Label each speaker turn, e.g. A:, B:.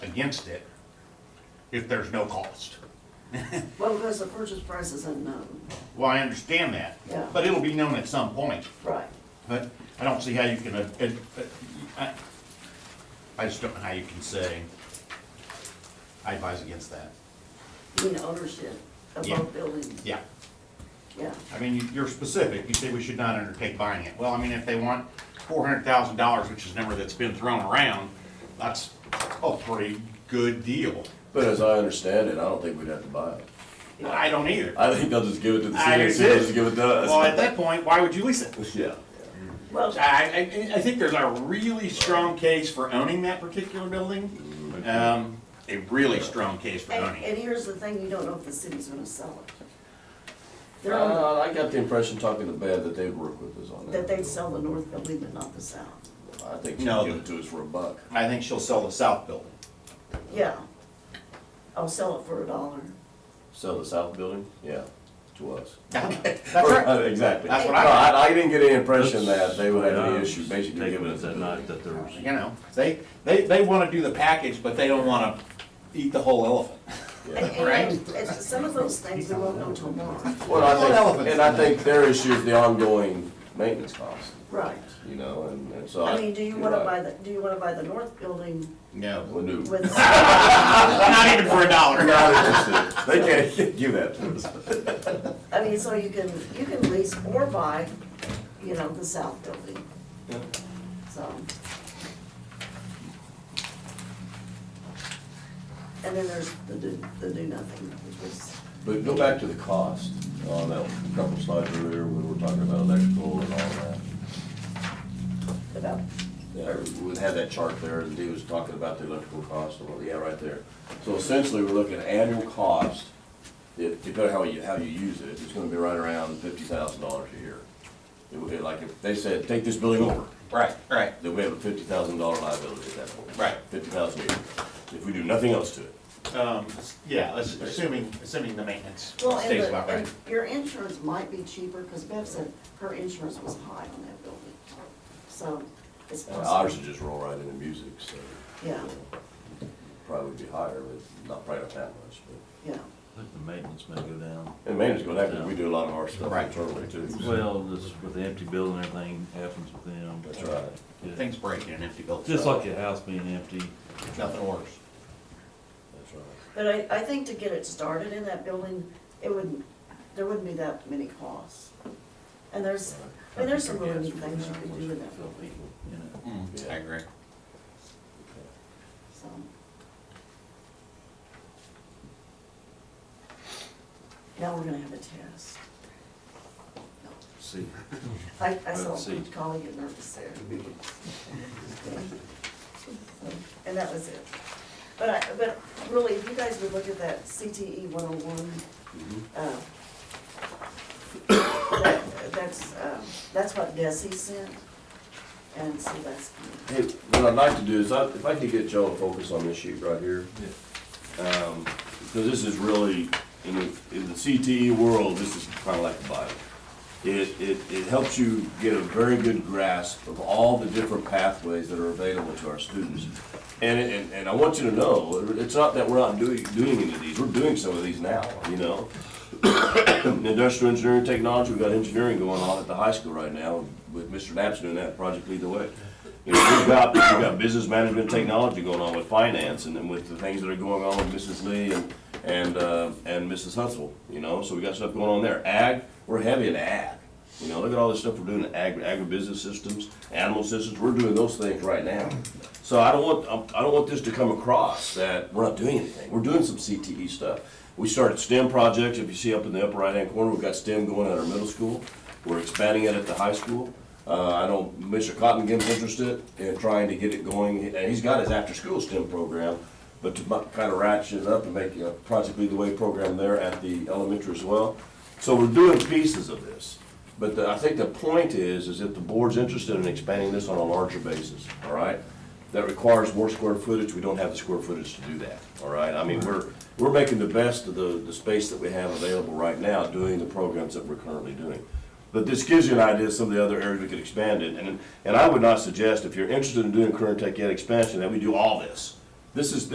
A: against it if there's no cost.
B: Well, because the purchase price is unknown.
A: Well, I understand that,
B: Yeah.
A: but it'll be known at some point.
B: Right.
A: But I don't see how you can, uh, uh, uh, I, I just don't know how you can say, I advise against that.
B: You mean ownership of
A: Yeah.
B: both buildings?
A: Yeah,
B: Yeah.
A: I mean, you- you're specific, you say we should not undertake buying it. Well, I mean, if they want four hundred thousand dollars, which is a number that's been thrown around, that's a pretty good deal.
C: But as I understand it, I don't think we'd have to buy it.
A: I don't either.
C: I think they'll just give it to the
A: I
C: city, and
A: agree.
C: they'll just give it to us.
A: Well, at that point, why would you lease it?
C: Yeah.
B: Well,
A: I, I, I think there's a really strong case for owning that particular building. Um, a really strong case for
B: and,
A: owning it.
B: and here's the thing, you don't know if the city's gonna sell it. They're on,
C: Uh, I got the impression talking to Bev that they'd work with us on that.
B: that they'd sell the north building but not the south.
C: I think
A: No.
C: she'd give it to us for a buck.
A: I think she'll sell the south building.
B: Yeah. I'll sell it for a dollar.
C: Sell the south building? Yeah, to us.
A: That's
C: Uh,
A: right.
C: Exactly.
A: That's what I
C: No,
A: got.
C: I didn't get any impression that they would have any
D: Yeah,
C: issue basically
D: statement
C: giving it
D: that
C: to
D: night that there was,
A: You know, they, they, they wanna do the package, but they don't wanna eat the whole elephant.
B: And,
C: Yeah.
B: and it's- some of those things we won't know till tomorrow.
C: Well, I think,
A: elephants.
C: and I think their issue is the ongoing maintenance cost,
B: Right.
C: you know, and, and so.
B: I mean, do you wanna
C: you're
B: buy
C: right.
B: the, do you wanna buy the north building
A: No.
C: Well, no.
B: with,
A: Not even for a
C: We're
A: dollar.
C: not interested. They can't give that to us.
B: I mean, so you can, you can lease or buy, you know, the south building. So. And then there's the do, the do nothing, which is,
C: But go back to the cost on that couple slides earlier when we were talking about electrical and all that.
B: about,
C: Yeah, we had that chart there and Dee was talking about the electrical cost and all, yeah, right there. So essentially, we're looking at annual cost, it- depending on how you, how you use it, it's gonna be right around fifty thousand dollars a year. It would be like if they said, take this building over,
A: Right, right.
C: then we have a fifty thousand dollar liability at that point.
A: Right.
C: Fifty thousand a year, if we do nothing else to it.
A: Um, yeah, ass- assuming, assuming the maintenance
B: well, and
A: stays about
B: the,
A: right.
B: and your insurance might be cheaper, cause Bev said her insurance was high on that building. So it's
A: Uh,
C: And Ours
B: possible,
C: would just roll right into music, so.
B: Yeah.
C: Probably would be higher, but not, probably not that much, but.
B: yeah.
D: I think the maintenance may go down.
C: And maintenance gonna happen, we do a lot of our stuff
A: Right.
C: internally too. so-
D: Well, this, with the empty building, everything happens with them.
C: That's right.
D: Yeah.
A: Things break in an empty building.
D: Just like your house being empty.
A: Nothing worse.
C: That's right.
B: But I, I think to get it started in that building, it wouldn't, there wouldn't be that many costs. And there's, I mean, there's some really neat things you could do with that building,
D: You know.
A: Mm, I agree.
B: so. Now we're gonna have a test.
D: See,
B: I, I saw
D: Let's see.
B: Collie get nervous there. And that was it. But I, but really, if you guys would look at that CTE one oh
D: Mm-hmm.
B: one, uh, that's, um, that's what Desi sent, and so that's,
C: Hey, what I'd like to do is, I- if I could get y'all to focus on this sheet right here. Um, Because this is really, in the, in the CTE world, this is kind of like a Bible. It, it, it helps you get a very good grasp of all the different pathways that are available to our students. And, it- and, and I want you to know, it's not that we're not doing, doing any of these, we're doing some of these now, you know? Industrial engineering technology, we've got engineering going on at the high school right now, with Mr. Knapp's doing that project lead the way. You know, we've got, we've got business management technology going on with finance, and then with the things that are going on with Mrs. Lee and, and, uh, and Mrs. Hutzel, you know, so we got stuff going on there. Ag, we're heavy in ag, you know, look at all this stuff we're doing in agri, agribusiness systems, animal systems, we're doing those things right now. So I don't want, I'm- I don't want this to come across that we're not doing anything, we're doing some CTE stuff. We started STEM projects, if you see up in the upper right-hand corner, we've got STEM going at our middle school, we're expanding it at the high school. Uh, I know Mr. Cottingham's interested in trying to get it going, and he's got his after-school STEM program, but to kind of ratchet it up and make a Project Lead the Way program there at the elementary as well. So we're doing pieces of this, but the- I think the point is, is if the board's interested in expanding this on a larger basis, all right? That requires more square footage, we don't have the square footage to do that, all right? I mean, we're, we're making the best of the, the space that we have available right now, doing the programs that we're currently doing. But this gives you an idea of some of the other areas we could expand in, and, and I would not suggest, if you're interested in doing current tech ed expansion, that we do all this. This is,